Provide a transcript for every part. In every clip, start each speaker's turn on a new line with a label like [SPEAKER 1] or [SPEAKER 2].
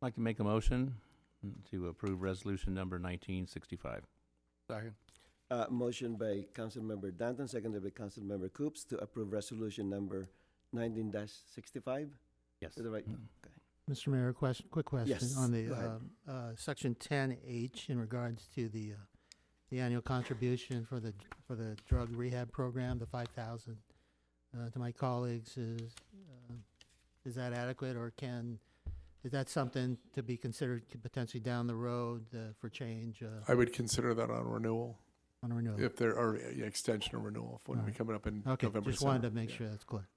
[SPEAKER 1] I'd like to make a motion to approve resolution number nineteen sixty-five.
[SPEAKER 2] Second.
[SPEAKER 3] Uh, motion by Councilmember Danton, seconded by Councilmember Coops to approve resolution number nineteen sixty-five.
[SPEAKER 1] Yes. Mm.
[SPEAKER 3] Is that right?
[SPEAKER 4] Mr. Mayor, question, quick question
[SPEAKER 3] Yes,
[SPEAKER 4] on
[SPEAKER 3] go
[SPEAKER 4] the,
[SPEAKER 3] ahead.
[SPEAKER 4] um, uh, section ten H in regards to the, uh, the annual contribution for the, for the drug rehab program, the five thousand. Uh, to my colleagues is, uh, is that adequate or can, is that something to be considered to potentially down the road, uh, for change, uh,
[SPEAKER 2] I would consider that on renewal,
[SPEAKER 4] on a renewal?
[SPEAKER 2] if there are, yeah, extension or renewal, if when we
[SPEAKER 4] Alright.
[SPEAKER 2] coming up in
[SPEAKER 4] Okay,
[SPEAKER 2] November.
[SPEAKER 4] just wanted
[SPEAKER 2] December.
[SPEAKER 4] to make
[SPEAKER 2] Yeah.
[SPEAKER 4] sure that's clear.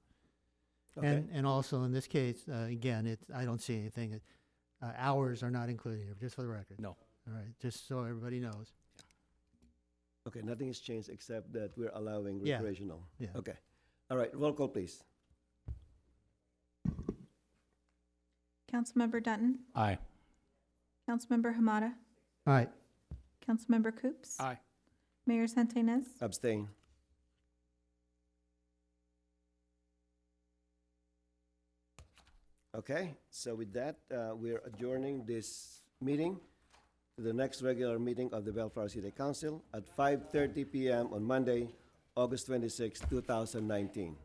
[SPEAKER 3] Okay.
[SPEAKER 4] And, and also in this case, uh, again, it, I don't see anything, uh, hours are not included here, just for the record.
[SPEAKER 1] No.
[SPEAKER 4] All right, just so everybody knows.
[SPEAKER 3] Okay, nothing has changed except that we're allowing
[SPEAKER 4] Yeah.
[SPEAKER 3] recreational.
[SPEAKER 4] Yeah.
[SPEAKER 3] Okay. All right, roll call, please.
[SPEAKER 5] Councilmember Dutton,
[SPEAKER 1] Aye.
[SPEAKER 5] Councilmember Hamada,
[SPEAKER 4] All right,
[SPEAKER 5] Councilmember Coops.
[SPEAKER 2] Aye.
[SPEAKER 5] Mayor Santenaz,
[SPEAKER 3] Abstain. Okay, so with that, uh, we're adjourning this meeting to the next regular meeting of the Bellflower City Council at 5:30 PM on Monday, August 26, 2019.